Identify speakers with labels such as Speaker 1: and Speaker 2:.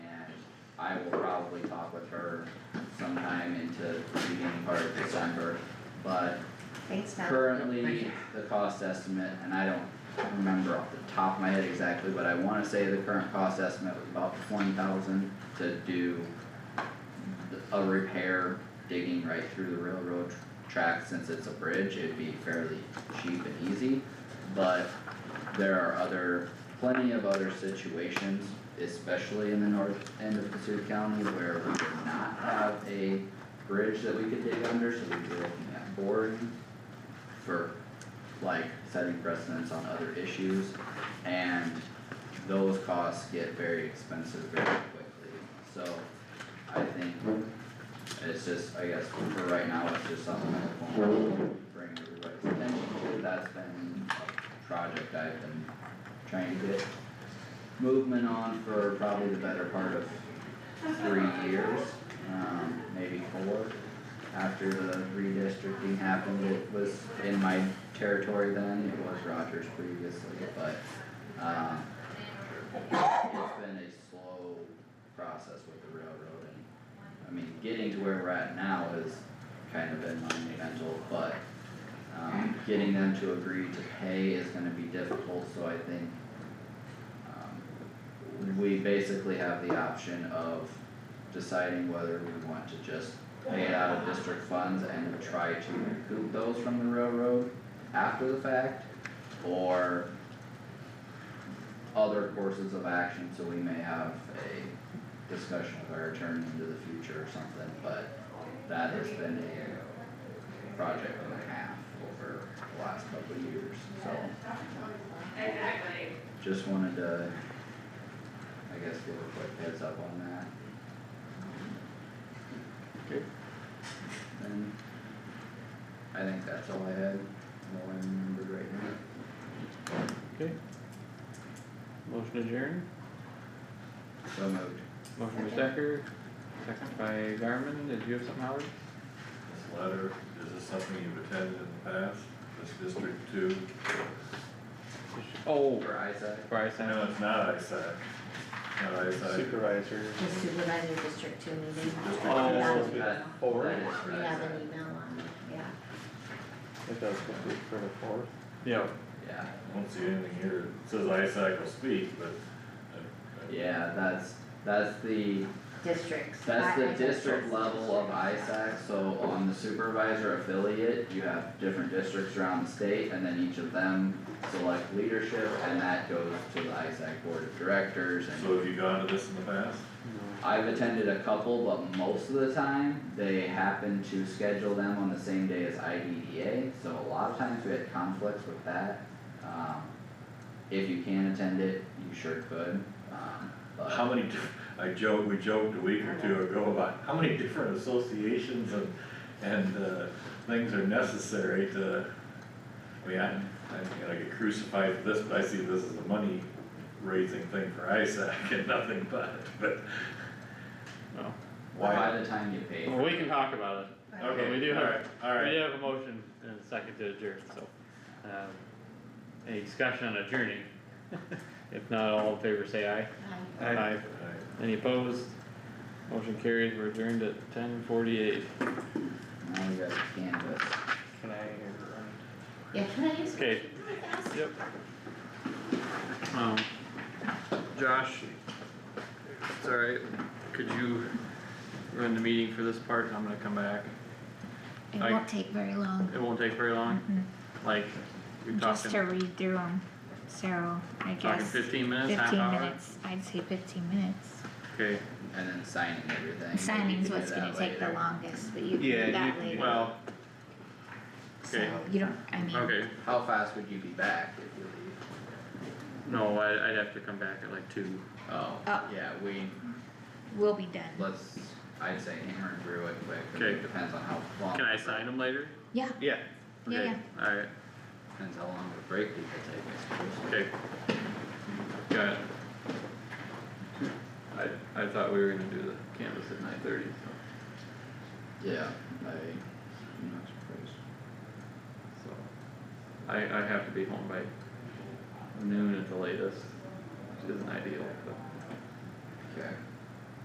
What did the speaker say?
Speaker 1: I will probably talk with her sometime into the beginning part of December. But
Speaker 2: Thanks, Matt.
Speaker 1: currently, the cost estimate, and I don't remember off the top of my head exactly, but I wanna say the current cost estimate was about twenty thousand to do a repair digging right through the railroad track, since it's a bridge, it'd be fairly cheap and easy. But there are other, plenty of other situations, especially in the north end of Cassuth County, where we do not have a bridge that we could dig under, so we'd be looking at boring for like setting precedents on other issues. And those costs get very expensive very quickly, so I think it's just, I guess, for right now, it's just something that will bring everybody's attention to, that's been a project I've been trying to get movement on for probably the better part of three years, um, maybe four. After the redistricting happened, it was in my territory then, it was Rogers previously, but, um, it's been a slow process with the railroad and, I mean, getting to where we're at now is kind of been monumental, but, um, getting them to agree to pay is gonna be difficult, so I think, um, we basically have the option of deciding whether we want to just pay it out of district funds and try to recoup those from the railroad after the fact, or other courses of action, so we may have a discussion with our attorney into the future or something, but that has been a project and a half over the last couple of years, so. Just wanted to, I guess, give a quick heads up on that.
Speaker 3: Okay.
Speaker 1: And I think that's all I had, all I remembered right now.
Speaker 3: Okay. Motion adjourned,
Speaker 1: So moved.
Speaker 3: motion by
Speaker 2: Second.
Speaker 3: Stecker, second by Garmin, did you have something, Howard?
Speaker 4: This letter, is this something you've attended in the past, this District Two?
Speaker 3: Oh,
Speaker 1: Over Isaac.
Speaker 3: Bryce, I
Speaker 4: No,
Speaker 3: know,
Speaker 4: it's not ISAC, not ISAC,
Speaker 5: Supervisor.
Speaker 2: The supervisor district two meeting.
Speaker 4: District
Speaker 3: Oh,
Speaker 2: Yeah,
Speaker 5: it's
Speaker 2: we
Speaker 5: good.
Speaker 2: have-
Speaker 5: Four.
Speaker 1: That is
Speaker 2: We have an
Speaker 1: Isaac.
Speaker 2: email on, it, yeah.
Speaker 5: I think that was supposed to be for the fourth.
Speaker 3: yeah,
Speaker 1: Yeah,
Speaker 4: I don't see anything here, it says ISAC will speak, but. I- I-
Speaker 1: yeah, that's, that's the,
Speaker 2: Districts.
Speaker 1: that's
Speaker 2: I- I
Speaker 1: the
Speaker 2: think
Speaker 1: district
Speaker 2: that's
Speaker 1: level of
Speaker 2: district.
Speaker 1: ISAC, so on the supervisor affiliate, you have different districts around the state, and then each of them select leadership, and that goes to the ISAC board of directors, and
Speaker 4: So have you gone to this in the past?
Speaker 1: I've attended a couple, but most of the time, they happen to schedule them on the same day as IDDA, so a lot of times we had conflicts with that. Um, if you can attend it, you sure could, um, but.
Speaker 4: How many, di- I joked, we joked a week or two ago about how many different associations and, and, uh, things are necessary to, I mean, I, I'm gonna get crucified for this, but I see this as a money raising thing for ISAC and nothing but, but
Speaker 3: no,
Speaker 1: By
Speaker 4: why?
Speaker 1: the time you pay.
Speaker 3: Well, we can talk about it,
Speaker 4: Okay,
Speaker 3: we do have-
Speaker 4: alright,
Speaker 3: we
Speaker 4: Alright,
Speaker 3: have a motion and a second to adjourn, so, um, any discussion on adjourning? If not, all in favor, say aye.
Speaker 2: I-
Speaker 3: Aye.
Speaker 4: alright.
Speaker 3: Any opposed? Motion carries, we're adjourned at ten forty-eight.
Speaker 1: Now we got canvas.
Speaker 5: Can I
Speaker 2: Yeah, can I use?
Speaker 3: Okay. Yep. Um, Josh, it's alright, could you run the meeting for this part and I'm gonna come back?
Speaker 6: It
Speaker 3: I-
Speaker 6: won't take very long, Mm-hmm.
Speaker 3: It won't take very long, like, you're
Speaker 6: just to
Speaker 3: talking,
Speaker 6: read through them, so I
Speaker 3: talking
Speaker 6: guess
Speaker 3: fifteen minutes, half
Speaker 6: fifteen
Speaker 3: hour?
Speaker 6: minutes, I'd say fifteen minutes.
Speaker 3: Okay,
Speaker 1: And then signing everything.
Speaker 6: Signing's
Speaker 1: We can do
Speaker 6: what's gonna
Speaker 1: that
Speaker 6: take the
Speaker 1: later.
Speaker 6: longest, but you can
Speaker 3: Yeah,
Speaker 6: do
Speaker 3: you
Speaker 6: that
Speaker 3: can do
Speaker 6: later,
Speaker 3: well,
Speaker 6: so
Speaker 3: okay.
Speaker 6: you don't, I mean,
Speaker 3: okay,
Speaker 1: How fast would you be back if you leave?
Speaker 3: no, I, I'd have to come back at like two.
Speaker 1: Oh,
Speaker 6: Oh.
Speaker 1: yeah, we,
Speaker 6: we'll be done,
Speaker 1: let's, I'd say hammer through it quick, 'cause
Speaker 3: Okay.
Speaker 1: it depends on how long.
Speaker 3: Can I sign them later?
Speaker 6: yeah,
Speaker 3: Yeah.
Speaker 6: Yeah,
Speaker 3: Okay, alright,
Speaker 1: Depends how long the break we could take, I suppose.
Speaker 3: okay. Got it. I, I thought we were gonna do the canvas at nine thirty, so.
Speaker 1: Yeah, I, I'm not surprised.
Speaker 3: So, I, I have to be home by noon at the latest, which isn't ideal, but
Speaker 1: Okay.